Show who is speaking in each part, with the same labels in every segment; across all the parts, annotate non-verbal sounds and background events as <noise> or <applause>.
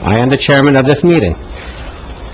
Speaker 1: I am the chairman of this meeting.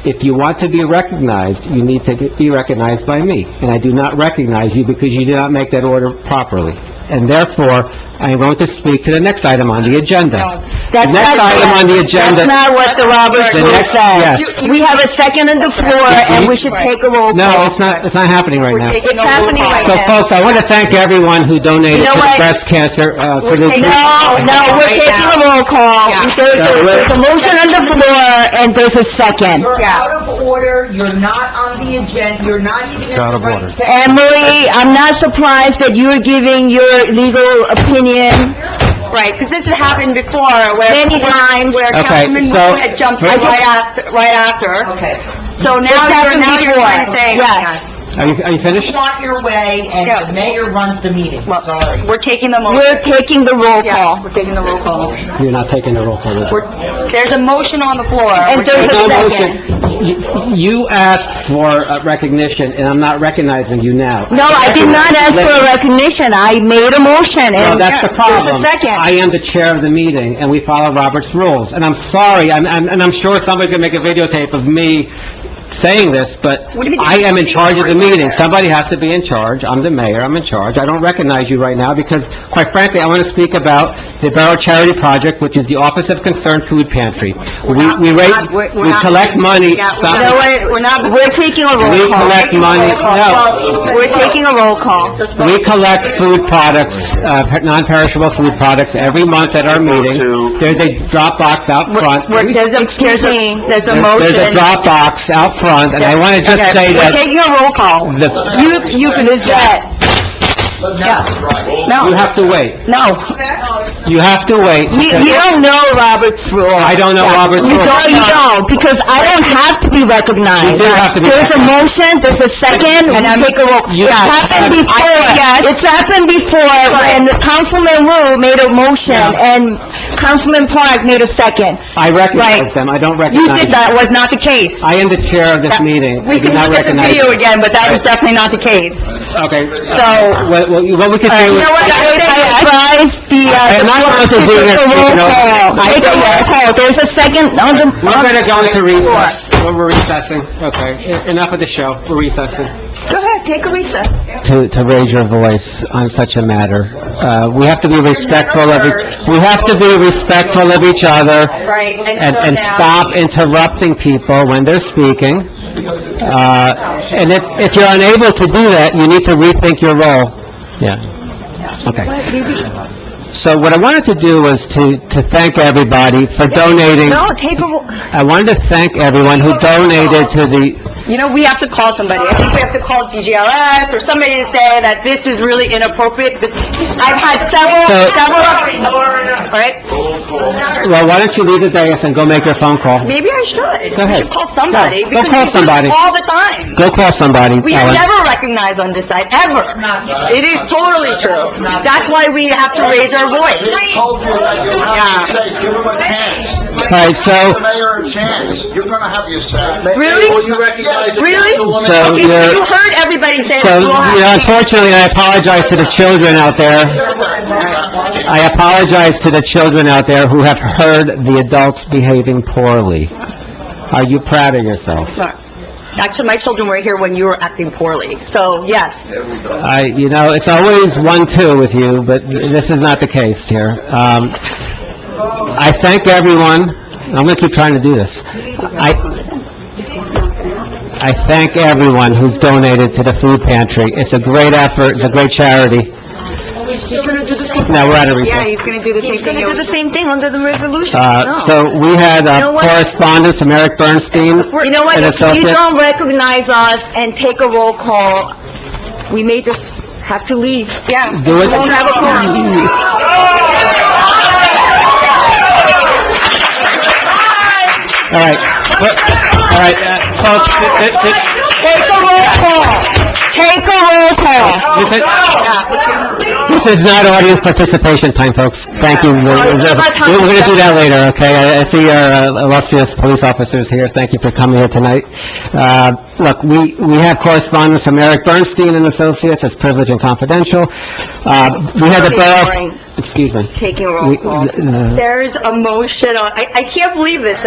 Speaker 1: If you want to be recognized, you need to be recognized by me, and I do not recognize you because you did not make that order properly. And therefore, I am going to speak to the next item on the agenda. The
Speaker 2: That's
Speaker 1: next
Speaker 2: not-
Speaker 1: item on the agenda...
Speaker 2: That's not what the Roberts
Speaker 1: The
Speaker 2: rule
Speaker 1: next-
Speaker 2: says.
Speaker 1: yes.
Speaker 2: We have a second on the floor, and we should take a roll
Speaker 1: No,
Speaker 2: call.
Speaker 1: it's not, it's not happening right now.
Speaker 2: It's happening right
Speaker 1: So
Speaker 2: now.
Speaker 1: folks, I want to thank everyone who donated
Speaker 2: You know
Speaker 1: to the
Speaker 2: what?
Speaker 1: breast cancer, uh, for the...
Speaker 2: No, no, we're taking a roll call. There's a there's a motion on the floor, and there's a second.
Speaker 3: You're out of order, you're not on the agenda, you're not even in
Speaker 1: It's out
Speaker 3: the
Speaker 1: of order.
Speaker 3: right section.
Speaker 2: Emily, I'm not surprised that you're giving your legal opinion.
Speaker 4: Right, because this has happened before where...
Speaker 2: Many times.
Speaker 4: Where
Speaker 1: Okay,
Speaker 4: Councilman
Speaker 1: so-
Speaker 4: Wu had jumped in right after, right after.
Speaker 3: Okay.
Speaker 4: So now
Speaker 2: It's
Speaker 4: you're,
Speaker 2: happened
Speaker 4: now you're trying to
Speaker 2: before,
Speaker 4: say...
Speaker 2: yes.
Speaker 1: Are you, are you
Speaker 3: You
Speaker 1: finished?
Speaker 3: want your way, and the mayor runs the meeting, sorry.
Speaker 4: Well, we're taking the motion.
Speaker 2: We're taking the roll
Speaker 4: Yeah,
Speaker 2: call.
Speaker 4: we're taking the roll call.
Speaker 1: You're not taking the roll call. is it?
Speaker 4: We're, there's a motion on the floor.
Speaker 2: And there's
Speaker 1: There's
Speaker 2: a
Speaker 1: no
Speaker 2: second.
Speaker 1: motion. You- You asked for uh, recognition, and I'm not recognizing you now.
Speaker 2: No, I did not ask for a recognition. I made a motion,
Speaker 1: No,
Speaker 2: and
Speaker 1: that's the
Speaker 2: there's a
Speaker 1: problem. I
Speaker 2: second.
Speaker 1: am the chair of the meeting, and we follow Robert's rules. And I'm sorry, I'm- I'm- and I'm sure somebody's going to make a videotape of me saying this, but
Speaker 4: What do you mean?
Speaker 1: I am in charge of the meeting. Somebody has to be in charge. I'm the mayor, I'm in charge. I don't recognize you right now because, quite frankly, I want to speak about the Borough Charity Project, which is the Office of Concerned Food Pantry. We we raise,
Speaker 4: we're- we're
Speaker 1: we
Speaker 4: not-
Speaker 1: collect money.
Speaker 4: Yeah, we're
Speaker 1: Stop
Speaker 2: No,
Speaker 1: it.
Speaker 2: we're, we're not, we're taking a
Speaker 1: We
Speaker 2: roll call.
Speaker 1: collect money, no.
Speaker 2: We're taking a roll call.
Speaker 1: We collect food products, uh, per- non-perishable food products every month at our meeting. There's a drop box out front.
Speaker 2: We're, there's a, excuse me, there's a
Speaker 1: There-
Speaker 2: motion.
Speaker 1: There's a drop box out front, and I want to just
Speaker 2: Okay,
Speaker 1: say
Speaker 2: We're
Speaker 1: that
Speaker 2: taking a roll call.
Speaker 1: the,
Speaker 2: You, you can, is that,
Speaker 1: you
Speaker 2: no,
Speaker 1: have to wait.
Speaker 2: no.
Speaker 1: You have to wait.
Speaker 2: You, you don't know Robert's rule.
Speaker 1: I don't know Robert's
Speaker 2: You
Speaker 1: rules.
Speaker 2: don't, you don't, because I don't have to be recognized.
Speaker 1: You do have to be
Speaker 2: There's a motion, there's a second, and I take a roll.
Speaker 1: You-
Speaker 2: It's happened before, it's happened before, and Councilman Wu made a motion, and Councilman Park made a second.
Speaker 1: I recognize
Speaker 2: Right.
Speaker 1: them, I don't
Speaker 2: You
Speaker 1: recognize
Speaker 2: did
Speaker 1: them.
Speaker 2: that, was not the case.
Speaker 1: I am the chair of this meeting, I
Speaker 4: We
Speaker 1: do
Speaker 4: can
Speaker 1: not
Speaker 4: look at the
Speaker 1: recognize...
Speaker 4: video again, but that was definitely not the case.
Speaker 1: Okay, so,
Speaker 2: So, Uh,
Speaker 1: what, what you- what we could
Speaker 2: you
Speaker 1: do...
Speaker 2: know what, I I advise the, uh...
Speaker 1: And I'm not
Speaker 2: the-
Speaker 1: doing it,
Speaker 2: the
Speaker 1: you
Speaker 2: roll
Speaker 1: know.
Speaker 2: call.
Speaker 1: I-
Speaker 2: Take a roll call, there's a second on the...
Speaker 1: We're
Speaker 2: on
Speaker 1: gonna go into
Speaker 2: the floor.
Speaker 1: recess. We're recessing, okay. E-, Enough of the show, we're recessing.
Speaker 4: Go ahead, take a recess.
Speaker 1: to, to raise your voice on such a matter. Uh, we have to be respectful of, each- we have to be respectful of each other
Speaker 4: Right,
Speaker 1: and,
Speaker 4: and so
Speaker 1: and
Speaker 4: now...
Speaker 1: stop interrupting people when they're speaking. Uh, and if, if you're unable to do that, you need to rethink your role. Yeah. Okay. So what I wanted to do was to, to thank everybody for donating.
Speaker 4: No, take a, roll-
Speaker 1: I wanted to thank everyone who donated to the,
Speaker 4: you know, we have to call somebody. I think we have to call DGRS or somebody to say that this is really inappropriate. This- I've had several,
Speaker 1: So-
Speaker 4: several... All right?
Speaker 1: well, why don't you leave the dais and go make your phone call?
Speaker 4: Maybe I should.
Speaker 1: Go
Speaker 4: We
Speaker 1: ahead.
Speaker 4: should call somebody.
Speaker 1: Go- go
Speaker 4: because
Speaker 1: call
Speaker 4: we do this
Speaker 1: somebody.
Speaker 4: All the time.
Speaker 1: Go call somebody,
Speaker 4: We are
Speaker 1: Ellen.
Speaker 4: never recognized on this side, ever. It is totally true. That's why we have to raise our voice.
Speaker 5: Hold your, you have to say, give him a chance.
Speaker 1: All right, so...
Speaker 5: Give the mayor a chance. You're gonna have your say.
Speaker 4: Really?
Speaker 5: Will you recognize the
Speaker 4: Really?
Speaker 5: councilwoman?
Speaker 1: So-
Speaker 4: Okay, so you heard everybody say
Speaker 1: So,
Speaker 4: that we'll
Speaker 1: you know,
Speaker 4: have...
Speaker 1: unfortunately, I apologize to the children out there. I apologize to the children out there who have heard the adults behaving poorly. Are you proud of yourself?
Speaker 4: Actually, my children were here when you were acting poorly, so yes.
Speaker 1: I, you know, it's always one-two with you, but this is not the case here. Um, I thank everyone, I'm gonna keep trying to do this. I, I thank everyone who's donated to the food pantry. It's a great effort, it's a great charity. Now, we're out of recess.
Speaker 4: gonna do the same thing. He's gonna do the same thing under the resolution.
Speaker 1: Uh, so we had uh, correspondence from Eric Bernstein.
Speaker 2: You know what,
Speaker 1: And
Speaker 2: if
Speaker 1: it's also-
Speaker 2: you don't recognize us and take a roll call, we may just have to leave.
Speaker 4: Yeah.
Speaker 1: Do it.
Speaker 2: Won't have a quorum.
Speaker 1: <laughs> All right, But- all right, uh, folks, th- th- th-
Speaker 2: Take a roll call. Take a roll call.
Speaker 1: you think- this is not audience participation time, folks. Thank you. We're we're- we're going to do that later, okay? I- I see our uh, illustrious police officers here. Thank you for coming here tonight. Uh, Look, we we have correspondence from Eric Bernstein and Associates, it's privileged and confidential. Uh, We had the
Speaker 4: Sorry.
Speaker 1: borough... Excuse me.
Speaker 4: Taking a
Speaker 1: We-
Speaker 4: roll call.
Speaker 1: uh,
Speaker 4: There's a motion on, I, I can't believe this,